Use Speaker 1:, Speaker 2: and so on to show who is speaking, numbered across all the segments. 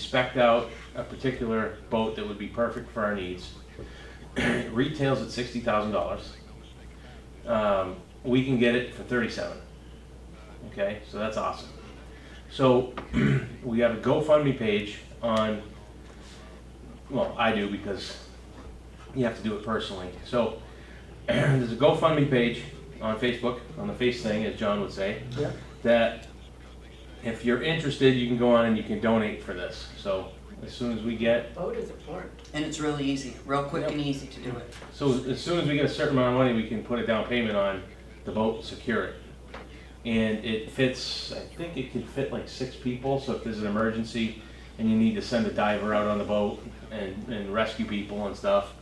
Speaker 1: spec'd out a particular boat that would be perfect for our needs. It Retails at sixty thousand dollars. Um, we can get it for thirty-seven. Okay, so that's awesome. So we have a GoFundMe page on, well, I do because you have to do it personally. So there's a GoFundMe page on Facebook, on the face thing, as John would say,
Speaker 2: Yeah.
Speaker 1: that if you're interested, you can go on and you can donate for this. So as soon as we get,
Speaker 3: Vote is important.
Speaker 4: And it's really easy, real quick and easy to do it.
Speaker 1: so as soon as we get a certain amount of money, we can put a down payment on the boat and secure it. And it fits, I think it can fit like six people, so if there's an emergency and you need to send a diver out on the boat and, and rescue people and stuff,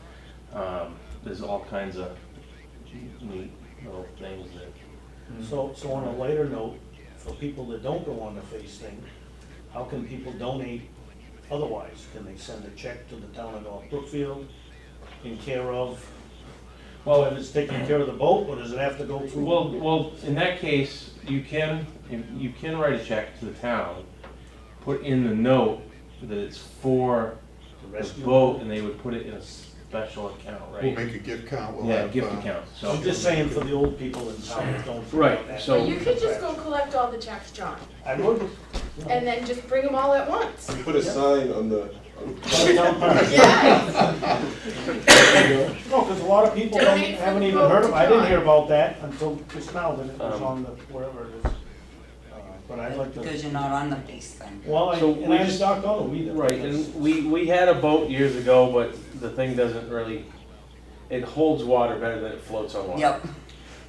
Speaker 1: um, there's all kinds of neat little things that
Speaker 2: So, so on a lighter note, for people that don't go on the face thing, how can people donate otherwise? Can they send a check to the town of North Brookfield in care of,
Speaker 1: Well,
Speaker 2: if it's taking care of the boat, or does it have to go through?
Speaker 1: Well, well, in that case, you can, you can write a check to the town, put in the note that it's for
Speaker 2: The
Speaker 1: the
Speaker 2: rescue?
Speaker 1: boat, and they would put it in a special account,
Speaker 5: We'll
Speaker 1: right?
Speaker 5: make a gift count, we'll
Speaker 1: Yeah,
Speaker 5: have,
Speaker 1: gift
Speaker 5: uh,
Speaker 1: account, so.
Speaker 2: I'm just saying for the old people in town that don't. feel
Speaker 1: Right,
Speaker 2: that.
Speaker 1: so-
Speaker 3: You could just go collect all the checks, John,
Speaker 2: I would,
Speaker 3: and then just bring them all at once.
Speaker 6: Put a sign on the, on-
Speaker 3: Yes,
Speaker 2: no, because a lot of people don't,
Speaker 3: Donate for
Speaker 2: haven't
Speaker 3: the
Speaker 2: even
Speaker 3: boat
Speaker 2: heard
Speaker 3: to
Speaker 2: of, I didn't
Speaker 3: John.
Speaker 2: hear about that until just now, that it was
Speaker 1: Um,
Speaker 2: on the, wherever it is. Uh, But I'd like to,
Speaker 4: Because you're not on the base thing.
Speaker 2: well, I-
Speaker 1: So
Speaker 2: and
Speaker 1: we
Speaker 2: I
Speaker 1: just-
Speaker 2: just not going either.
Speaker 1: Right, and we, we had a boat years ago, but the thing doesn't really, it holds water better than it floats on water.
Speaker 4: Yep,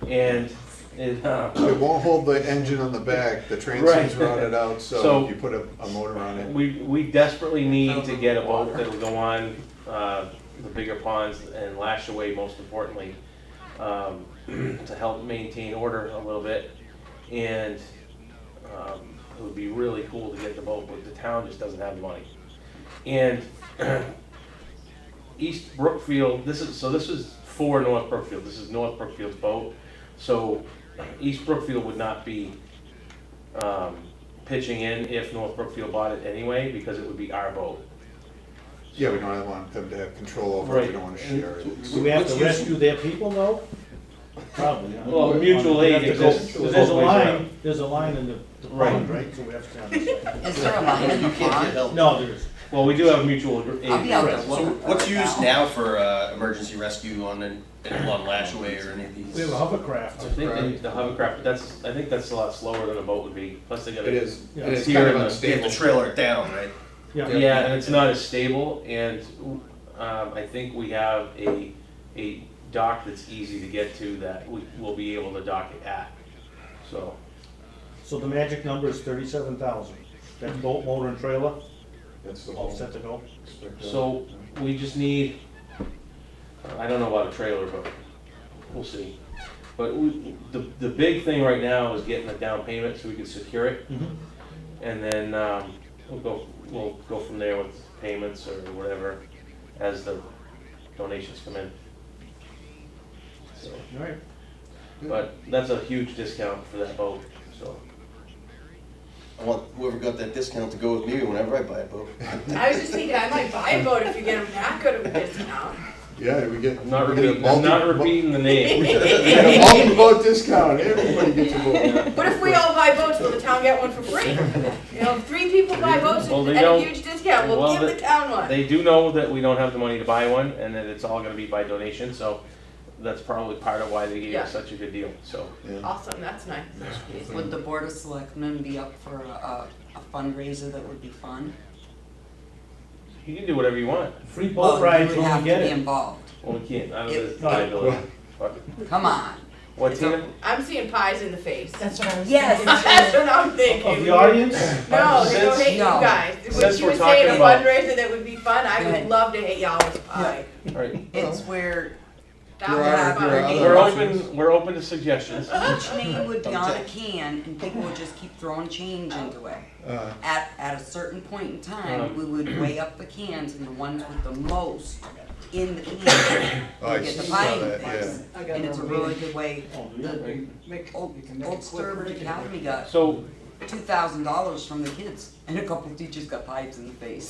Speaker 1: And it, uh,
Speaker 5: it won't hold the engine on the back, the
Speaker 1: Right.
Speaker 5: transom's routed out, so
Speaker 1: So-
Speaker 5: if you put a, a motor on it.
Speaker 1: we, we desperately need to get a boat that'll go on, uh, the bigger ponds and lash away most importantly, um, to help maintain order a little bit. And, um, it would be really cool to get the boat, but the town just doesn't have the money. And East Brookfield, this is, so this is for North Brookfield, this is North Brookfield's boat. So East Brookfield would not be, um, pitching in if North Brookfield bought it anyway, because it would be our boat.
Speaker 5: Yeah, we don't want them to have control over it, we don't wanna share it.
Speaker 2: Do we have to
Speaker 1: Which is-
Speaker 2: rescue their people though? Probably. huh?
Speaker 1: Well, mutual
Speaker 2: We
Speaker 1: aid
Speaker 2: have to go-
Speaker 1: exists.
Speaker 2: There's
Speaker 1: both
Speaker 2: a
Speaker 1: ways around.
Speaker 2: line, there's a line in the, the
Speaker 1: Right.
Speaker 2: pond, right? So we have to understand.
Speaker 4: is there a line in the pond?
Speaker 2: No, there is.
Speaker 1: Well, we do have mutual aid.
Speaker 4: I'll be out there
Speaker 7: So
Speaker 4: looking for
Speaker 7: what's
Speaker 4: it
Speaker 7: used now for uh, emergency rescue on an, on Lashaway or any of these?
Speaker 2: We have a hovercraft.
Speaker 1: I think they need the hovercraft, but that's, I think that's a lot slower than a boat would be, plus they
Speaker 5: It
Speaker 1: gotta.
Speaker 5: is,
Speaker 2: Yeah.
Speaker 5: it's
Speaker 1: Here
Speaker 5: kind of
Speaker 1: in the-
Speaker 7: They have
Speaker 5: unstable.
Speaker 7: to trailer it down, right?
Speaker 2: Yeah,
Speaker 1: Yeah, and it's not as stable, and, um, I think we have a, a dock that's easy to get to that we, we'll be able to dock it at, so.
Speaker 2: so the magic number is thirty-seven thousand. That boat, motor and trailer,
Speaker 5: That's the
Speaker 2: all
Speaker 5: whole.
Speaker 2: set to go.
Speaker 1: So, we just need, I don't know about a trailer, but we'll see. But we, the, the big thing right now is getting a down payment so we can secure it.
Speaker 2: Mhm.
Speaker 1: And then, um, we'll go, we'll go from there with payments or whatever as the donations come in. So,
Speaker 2: All right.
Speaker 1: But that's a huge discount for that boat, so.
Speaker 7: I want whoever got that discount to go with me whenever I buy a boat.
Speaker 3: I was just thinking, I might buy a boat if you get them that good of a discount.
Speaker 5: Yeah, we get.
Speaker 1: I'm not
Speaker 5: we get a
Speaker 1: repeating, I'm not
Speaker 5: multi-
Speaker 1: repeating the name.
Speaker 5: We get a multi-boat discount, everybody gets a boat.
Speaker 3: What if we all buy boats, will the town get one for free? You know, if three people buy boats
Speaker 1: Well, they
Speaker 3: at a
Speaker 1: don't-
Speaker 3: huge discount,
Speaker 1: well,
Speaker 3: we'll give
Speaker 1: they-
Speaker 3: the town one.
Speaker 1: They do know that we don't have the money to buy one, and that it's all gonna be by donation, so that's probably part of why they gave
Speaker 3: Yeah.
Speaker 1: us such a good deal, so.
Speaker 5: Yeah.
Speaker 3: Awesome, that's nice.
Speaker 4: Would the board of selectmen be up for a, a fundraiser that would be fun?
Speaker 1: You can do whatever you want.
Speaker 2: Free
Speaker 4: Well,
Speaker 2: boat rides
Speaker 4: You would
Speaker 2: when
Speaker 4: have
Speaker 2: we
Speaker 4: to
Speaker 2: get
Speaker 4: be
Speaker 2: it.
Speaker 4: involved.
Speaker 1: Well, we can't, I don't know, it's
Speaker 2: Yeah.
Speaker 1: liability. Fuck.
Speaker 4: Come on.
Speaker 1: What,
Speaker 4: It's a-
Speaker 1: Tina?
Speaker 3: I'm seeing pies in the face. That's
Speaker 4: Yes.
Speaker 3: what I'm
Speaker 2: Of
Speaker 3: thinking.
Speaker 2: the audience?
Speaker 3: No, they don't
Speaker 1: Since-
Speaker 3: hate you
Speaker 4: No.
Speaker 3: guys. When
Speaker 1: Since
Speaker 3: she
Speaker 1: we're
Speaker 3: was saying a
Speaker 1: talking about-
Speaker 3: fundraiser that would be fun, I
Speaker 4: Go
Speaker 3: would
Speaker 4: ahead.
Speaker 3: love to hit y'all with pie.
Speaker 1: All right,
Speaker 4: It's where
Speaker 3: That
Speaker 5: There
Speaker 3: would
Speaker 5: are-
Speaker 3: be
Speaker 5: there
Speaker 3: fun.
Speaker 5: are other
Speaker 1: we're
Speaker 5: options.
Speaker 1: open, we're open to suggestions.
Speaker 4: each name would be on a can and people would just keep throwing change into it.
Speaker 5: Uh,
Speaker 4: At, at a certain point in time, we would weigh up the cans and the ones with the most in the can
Speaker 5: Oh, I
Speaker 4: would get the
Speaker 5: saw
Speaker 4: pie
Speaker 5: that,
Speaker 4: prize.
Speaker 8: I got
Speaker 4: And it's a
Speaker 8: another
Speaker 4: really
Speaker 8: meeting.
Speaker 4: good way,
Speaker 2: Oh, do you?
Speaker 4: the
Speaker 8: Make-
Speaker 4: old,
Speaker 8: you can make
Speaker 4: old
Speaker 8: it quick.
Speaker 4: Sturbridge Academy got
Speaker 1: So,
Speaker 4: two thousand dollars from the kids, and a couple of teachers got pipes in the face.